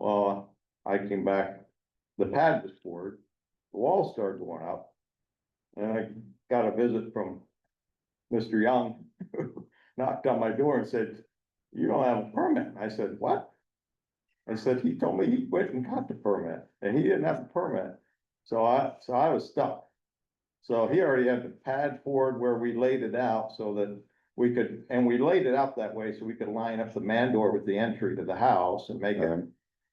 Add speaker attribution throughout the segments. Speaker 1: Uh, I came back, the pad was poured, the walls started going up. And I got a visit from Mr. Young, knocked on my door and said, you don't have a permit. I said, what? I said, he told me he went and got the permit and he didn't have a permit. So I, so I was stuck. So he already had the pad poured where we laid it out so that we could, and we laid it out that way so we could line up the man door with the entry to the house and make it,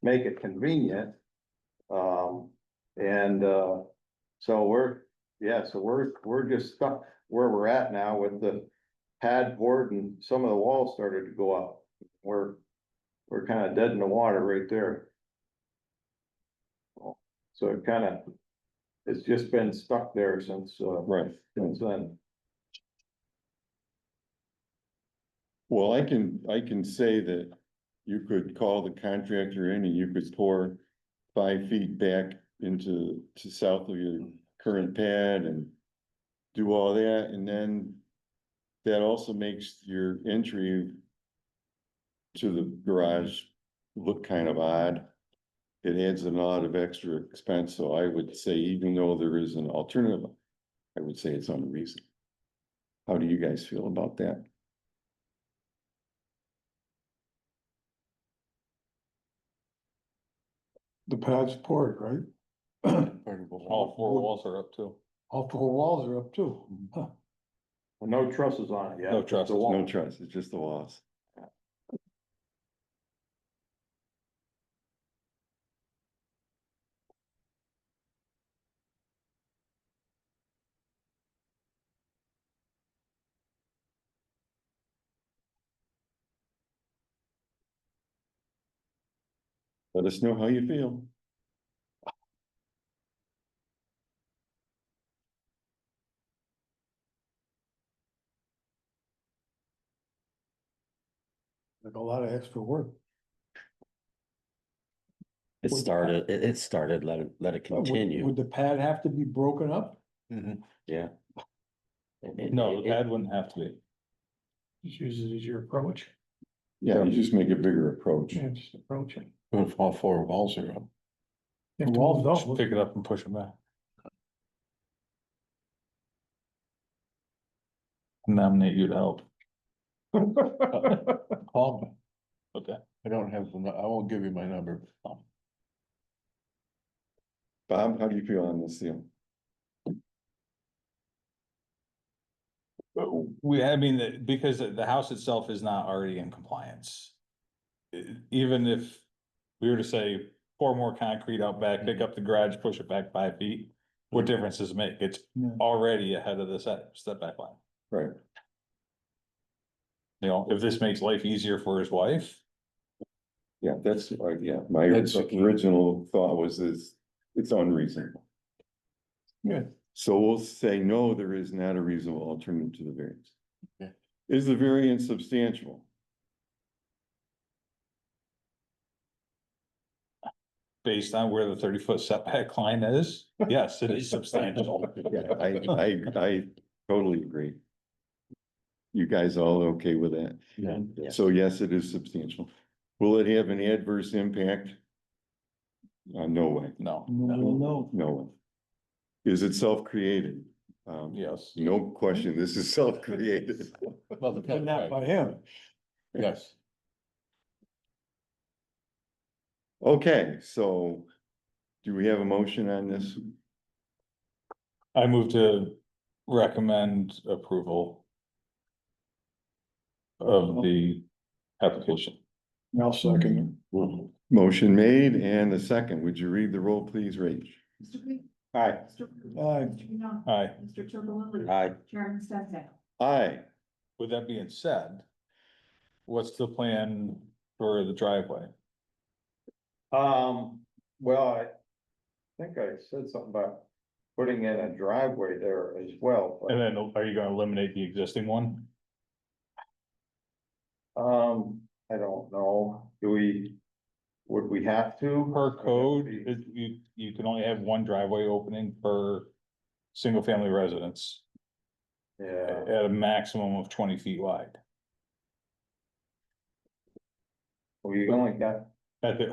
Speaker 1: make it convenient. Um, and, uh, so we're, yeah, so we're, we're just stuck where we're at now with the pad board and some of the walls started to go up. We're, we're kind of dead in the water right there. So it kind of, it's just been stuck there since, uh,
Speaker 2: Right,
Speaker 1: since then.
Speaker 2: well, I can, I can say that you could call the contractor in and you could pour five feet back into, to south of your current pad and do all that, and then that also makes your entry to the garage look kind of odd. It adds a lot of extra expense, so I would say even though there is an alternative, I would say it's unreasonable. How do you guys feel about that?
Speaker 3: The pad's poured, right?
Speaker 4: All four walls are up too.
Speaker 3: All four walls are up too. Huh.
Speaker 1: No trusses on it yet.
Speaker 4: No
Speaker 1: just the
Speaker 4: trusses, no
Speaker 1: wall.
Speaker 2: No trust, it's just the loss. Let us know how you feel.
Speaker 3: Like a lot of extra work.
Speaker 5: It
Speaker 3: Would-
Speaker 5: started, it, it started, let it, let it
Speaker 2: Oh,
Speaker 3: Uh, would-
Speaker 5: continue,
Speaker 3: Would the pad have to be broken up?
Speaker 5: yeah. It- it-
Speaker 4: No,
Speaker 5: it-
Speaker 4: the pad wouldn't have to be.
Speaker 3: Just use it as your approach.
Speaker 2: Yeah, you just make a bigger approach.
Speaker 3: Yeah, just approach it.
Speaker 4: If all four walls are up.
Speaker 3: The walls don't,
Speaker 4: Pick it up and push it back. Nominate you to help. Call me. Okay. I don't have, I won't give you my number.
Speaker 2: Bob, how do you feel on this deal?
Speaker 4: We, I mean, the- because the the house itself is not already in compliance. E- Even if we were to say, pour more concrete out back, pick up the garage, push it back five feet, what difference does it make? It's already ahead of the set, step back line.
Speaker 2: Right.
Speaker 4: You know, if this makes life easier for his wife,
Speaker 2: Yeah, that's, uh, yeah, my
Speaker 4: That's-
Speaker 2: original thought was this, it's unreasonable.
Speaker 3: Yeah.
Speaker 2: So we'll say, no, there is not a reasonable alternative to the variance.
Speaker 4: Okay.
Speaker 2: Is the variance substantial?
Speaker 4: based on where the thirty foot setback line is, yes, it is substantial.
Speaker 2: I, I, I totally agree. You guys all okay with that?
Speaker 5: yeah, yeah.
Speaker 2: So yes, it is substantial. Will it have an adverse impact? Uh, no way,
Speaker 4: No,
Speaker 3: Mm-hmm.
Speaker 2: no way. Is it self-created? Um,
Speaker 4: yes.
Speaker 2: No question, this is self-created.
Speaker 4: Well,
Speaker 3: but not by him.
Speaker 4: yes.
Speaker 2: Okay, so do we have a motion on this?
Speaker 4: I move to recommend approval. Of the application.
Speaker 3: Now second.
Speaker 2: Motion made and a second. Would you read the roll, please, Rach?
Speaker 6: Mr. Green.
Speaker 2: Aye.
Speaker 6: Mr. Green.
Speaker 3: Aye.
Speaker 6: Mr. Young.
Speaker 4: Aye.
Speaker 6: Mr. Chirpilli.
Speaker 5: Aye.
Speaker 6: Chairman Sensing.
Speaker 2: Aye.
Speaker 4: With that being said. What's the plan for the driveway?
Speaker 1: Um, well, I think I said something about putting in a driveway there as well. but,
Speaker 4: And then are you gonna eliminate the existing one?
Speaker 1: Um, I don't know, do we, would we have to?
Speaker 4: Per code, it- you, you can only have one driveway opening per. Single family residence
Speaker 1: Yeah,
Speaker 4: at a maximum of twenty feet wide.
Speaker 1: we only got
Speaker 4: At the